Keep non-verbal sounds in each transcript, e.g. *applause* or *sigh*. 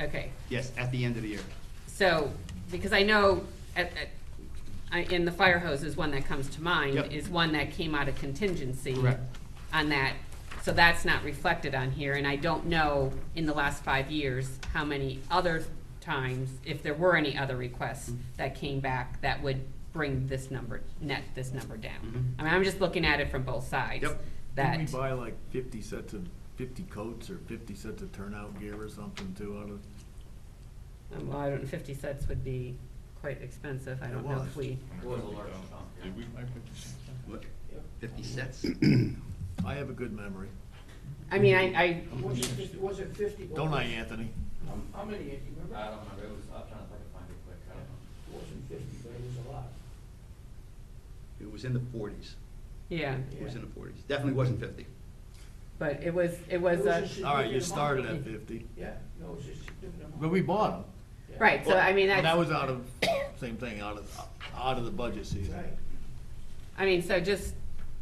Okay, Yes, at the end of the year. so, because I know, at, at, I, in the fire hose is one that comes to mind, Yep. is one that came out of contingency. Correct. On that, so that's not reflected on here, and I don't know in the last five years how many other times, if there were any other requests Mm-hmm. that came back that would bring this number, net this number down. Mhm. I mean, I'm just looking at it from both sides. Yep. That, Didn't we buy like fifty sets of, fifty coats or fifty sets of turnout gear or something too out of? um, well, I don't, fifty cents would be quite expensive, I It don't know if was. we. was a large chunk. Did we buy fifty cents? What? Fifty cents? I have a good memory. I mean, I, Mm-hmm. Was it, fif- was it fifty? Don't I, Anthony? How- How many, Andy, remember? I don't remember, it was, I'm trying to think if I can find it quick, I don't know. It wasn't fifty, but it was a lot. It was in the forties. yeah, It was in the forties. Definitely wasn't fifty. but it was, it was It was a, just- All right, you started at fifty, Yeah, no, it was just. a different amount. but we bought them. Yeah. right, so I mean, And that that's, was out of, same thing, out of, out of the budget season. Right. I mean, so just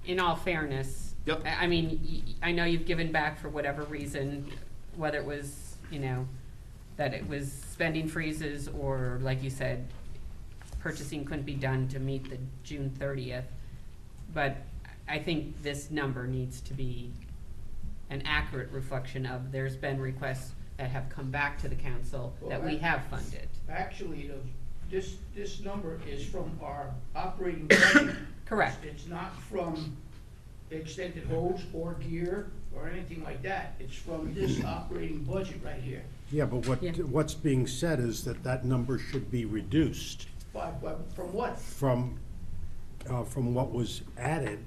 in all fairness. Yep. I, I mean, y- I know you've given back for whatever reason, whether it was, you know, that it was spending freezes or, like you said, purchasing couldn't be done to meet the June thirtieth. But I think this number needs to be an accurate reflection of, there's been requests that have come back to the council that we Well, I- have funded. Actually, the, this, this number is from our *coughs* operating budget. Correct. It's not from extended hose or gear or anything like that. It's from *coughs* this operating budget right here. Yeah, but what, Yeah. what's being said is that that number should be reduced But, but from what? from, uh, from what was added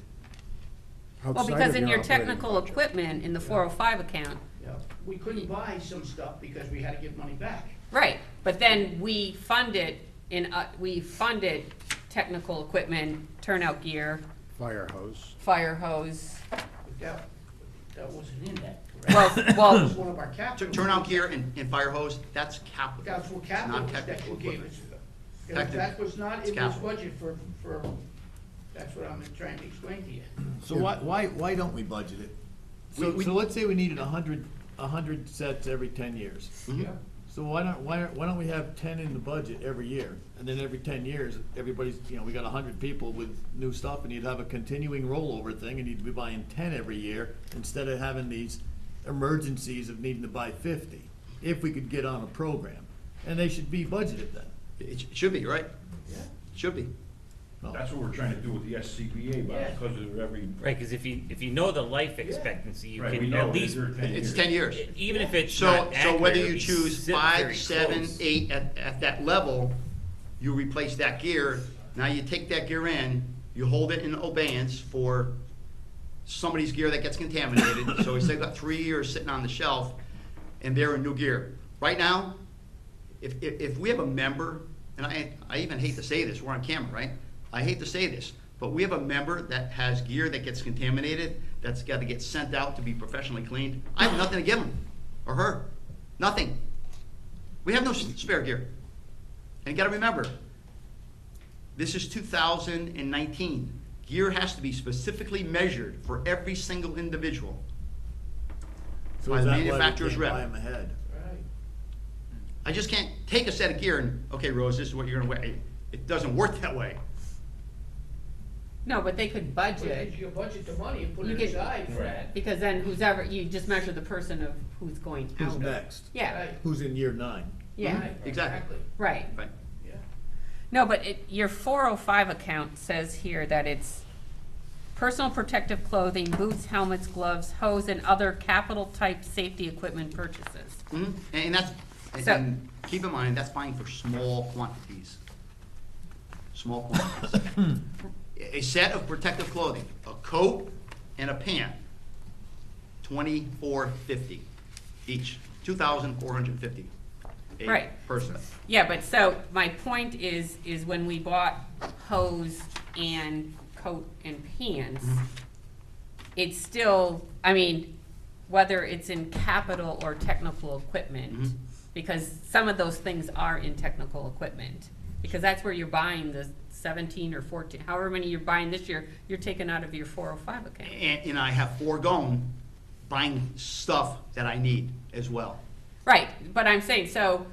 Well, outside because of in your operating technical budget. equipment, in the four oh five account, You know, We couldn't buy some stuff because we had to give money back. right, but then we fund it in, uh, we funded technical equipment, turnout gear, Fire hose. fire hose, But that, that wasn't in that, well, correct? That was well, one of our Tur- capital. Turnout gear and, and fire hose, that's capital. That's what It's capital not was that technical you gave equipment. us. Technical. That- That was not in this capital. budget for, for, that's what I'm trying to explain to you. So why, why, why don't we budget it? We- So, we- so let's say we needed a hundred, a hundred sets every ten years. Yeah. So why don't, why, aren't- why don't we have ten in the budget every year? And then every ten years, everybody's, you know, we got a hundred people with new stuff and you'd have a continuing rollover thing and you'd be buying ten every year instead of having these emergencies of needing to buy fifty, if we could get on a program. And they should be budgeted then. It sh- should be, right? Yeah. Should be. No. That's what we're trying to do with the SCBA, Yeah. but because of every, Right, because if you, if you know the life expectancy, you right, we can know it at is least, there ten It's years. ten years. even if it's So, not so accurate, whether it'll you be choose si- five, very seven, close. eight, at, at that level, you replace that gear. Now you take that gear in, you hold it in abeyance for somebody's gear that gets contaminated. So we say got three years sitting on the shelf and they're in new gear. Right now, if, if, if we have a member, and I, I even hate to say this, we're on camera, right? I hate to say this, but we have a member that has gear that gets contaminated, that's gotta get sent out to be professionally cleaned. I have nothing to give him or her, nothing. We have no s- spare gear. And you gotta remember, this is two thousand and nineteen. Gear has to be specifically measured for every single individual. So by is the that why we manufacturer's can't rep. Buy them ahead. Right. I just can't take a set of gear and, okay, Rose, this is what you're gonna wear. It, it doesn't work that way. no, but they could But budget. if you budget the money and put You it get- aside for that. Because then who's ever, you just measure the person of who's going out. Who's of- next? Yeah, Right. Who's in year nine? yeah, Right, Exactly. right. Right. Yeah. No, but it, your four oh five account says here that it's personal protective clothing, boots, helmets, gloves, hose, and other capital type safety equipment purchases. Mhm. And, and that's, and- So- and keep in mind, that's buying for small quantities. Small quantities. *coughs* A a set of protective clothing, a coat and a pant, twenty-four fifty each, two thousand four hundred and fifty. Right. Person. Yeah, but so, my point is, is when we bought hose and coat and pants, it's still, I mean, whether it's in capital or technical equipment, Mhm. because some of those things are in technical equipment. Because that's where you're buying the seventeen or fourteen, however many you're buying this year, you're taking out of your four oh five Eh. account. And, and I have foregone buying stuff that I need as well. Right, but I'm saying, so